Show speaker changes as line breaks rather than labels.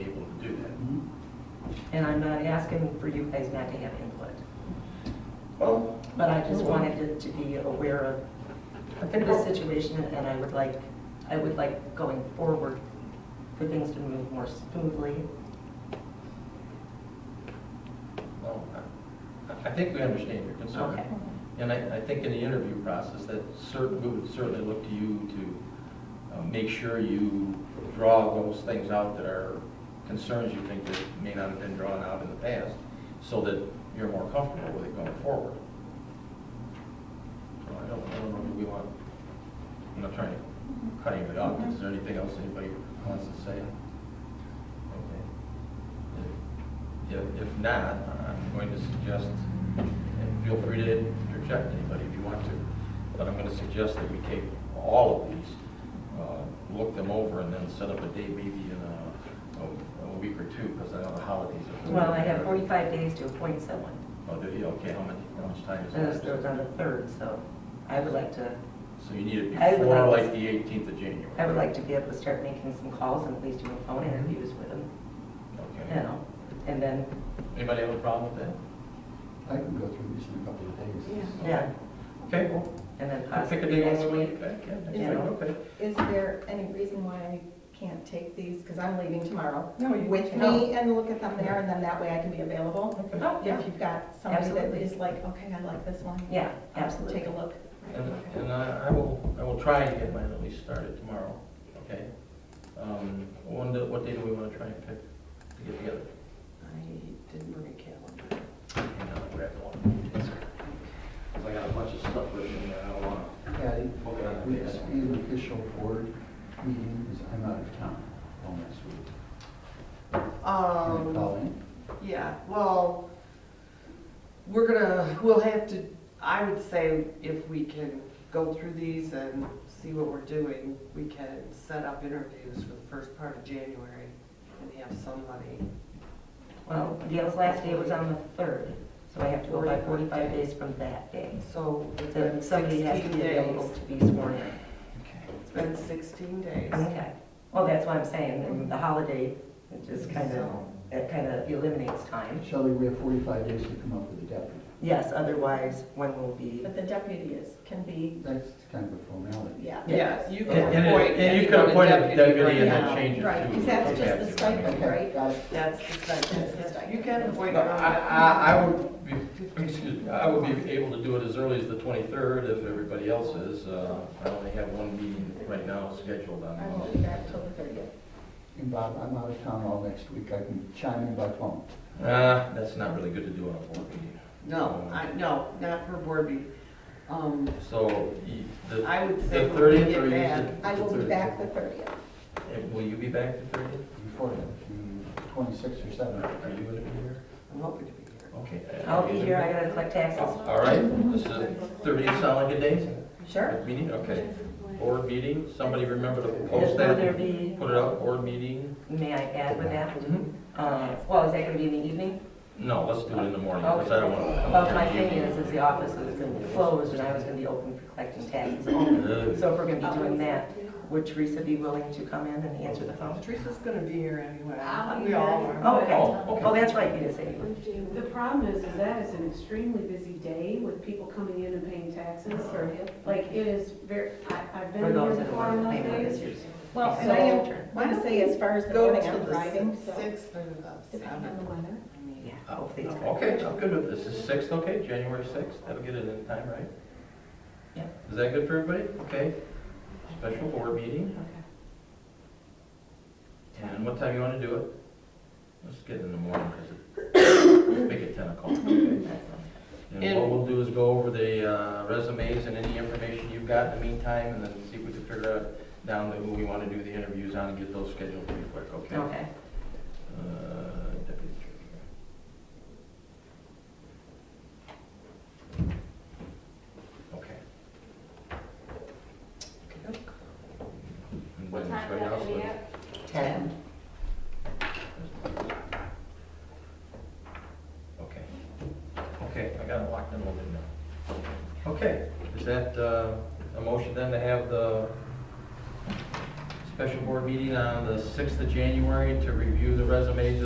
and I'm not asking for you guys not to have input.
Well,
But I just wanted to- to be aware of the situation, and I would like, I would like going forward for things to move more smoothly.
well, I- I think we understand your concern.
Okay.
And I, I think in the interview process, that certain, we would certainly look to you to uh, make sure you draw those things out that are concerns you think that may not have been drawn out in the past, so that you're more comfortable with it going forward. So I don't, I don't know if we want, I'm not trying to cut anybody off, is there anything else anybody wants to say? Okay. If, if not, I'm going to suggest, and feel free to interject anybody if you want to, but I'm gonna suggest that we take all of these, uh, look them over, and then set up a date maybe in a, a- a week or two, because I know the holidays are.
Well, I have 45 days to appoint someone,
Oh, do you? Okay, how much, how much time
and
is
it's
that?
on the 3rd, so I would like to,
So you need it
I would
before
like-
like the eighteenth of January?
I would like to be able to start making some calls and at least doing phone interviews with them, you
Okay.
know? And then,
Anybody have a problem with that?
I can go through these in a couple of days.
Yeah.
yeah,
Okay, well,
and then
I'll pick a
possibly
day
Uh, next
when we,
week.
okay, yeah, next
Yeah.
week, okay.
Is there any reason why I can't take these, because I'm leaving tomorrow?
No, you-
With me and look at them there, and then that way I can be available?
Okay.
Oh, yeah.
If you've got somebody that
Absolutely.
is like, okay, I like this one.
Yeah,
I'll
absolutely.
Take a look.
And, and I, I will, I will try and get mine at least started tomorrow, okay? Um, when, do- what day do we wanna try and pick to get together?
I didn't bring a calendar.
Hang on, I'll grab one. 'Cause I got a bunch of stuff written there, I don't wanna.
Patty,
Okay.
uh, would this be an official board meeting, because I'm out of town all next week. Can I call
Um,
in?
yeah, well, we're gonna, we'll have to, I would say if we can go through these and see what we're doing, we can set up interviews for the first part of January and have somebody.
Well, Gail's last day was on the 3rd, so I have to go by 45 days from that day.
So it's
So
been
somebody has to
sixteen
be available
days.
to be sworn in.
It's been sixteen days.
Okay, well, that's what I'm saying, and the holiday, it just kind of, it kind of eliminates time.
Shelley, we have 45 days to come up with a deputy.
Yes, otherwise, when will be,
But the deputy is, can be,
That's kind of a formality.
yeah.
Yeah, you
And,
can
and
appoint.
it- and you
anyone
can appoint a deputy
right
and
now.
then change it to.
Right, because that's just the stipend.
Okay,
Right.
got it.
That's the stipend,
That's the
yes.
stipend.
You can appoint
No,
your own.
I, I, I would be, excuse me, I would be able to do it as early as the twenty-third if everybody else is, uh, I only have one meeting right now scheduled on
I
Monday.
won't be back till the thirtieth.
And Bob, I'm out of town all next week, I can chime in by phone.
Uh, that's not really good to do on a board meeting.
No, I, no, not for board meeting. Um,
So, y- the.
I would say
The
when we
thirtieth
get
or is
back,
it?
I will be
the
back the thirtieth.
30th? And Will you be back the thirtieth?
Before that, the 26 or 7.
Are you gonna be here?
I'm hoping to be here.
Okay.
I'll be here, I gotta collect taxes.
All right, this is thirtieth, sound like a day?
Sure.
Meeting, okay. Board meeting, somebody remember to
Will
post that,
there be,
put it up, board meeting?
may I add with that? Uh, Well, is that gonna be in the evening?
No, let's do it in the morning, because I don't want to.
Well, my thing is, is the office is gonna be closed, and I was gonna be open for collecting taxes only. So if we're gonna be doing that, would Teresa be willing to come in and answer the phone?
Teresa's gonna be here anyway.
I'll be
We all
here.
are.
Oh, okay,
Oh, okay.
oh, that's right, you didn't say. you were-
The problem is, is that is an extremely busy day with people coming in and paying taxes. Like, it is very, I, I've been
For
here
those that
before
want
on
to pay for
those
this
days.
year's.
Well,
Yeah.
and I
So-
am want to say as far as the
Go
voting,
to
I'm driving,
the
so.
sixth or the
Depending on the
seventh.
weather.
I mean,
Yeah, hopefully it's.
Okay, I'm good with this. Is sixth okay, January sixth? That'll get it in time, right?
Yeah.
Is that good for everybody? Okay. Special board meeting. And what time you want to do it? Let's get it in the morning, because it, make it ten o'clock. okay? And what we'll do is go over the uh, resumes and any information you've got in the meantime, and then see if we can figure out down the, who we want to do the interviews on and get those scheduled pretty quick, okay?
Okay.
Uh, deputy treasurer. Okay. And
What
then
time
right
is that
now,
gonna be
so-
at?
10.
Okay. Okay, I got it locked in a little bit now. Okay, is that uh, a motion then to have the special board meeting on the 6th of January to review the resumes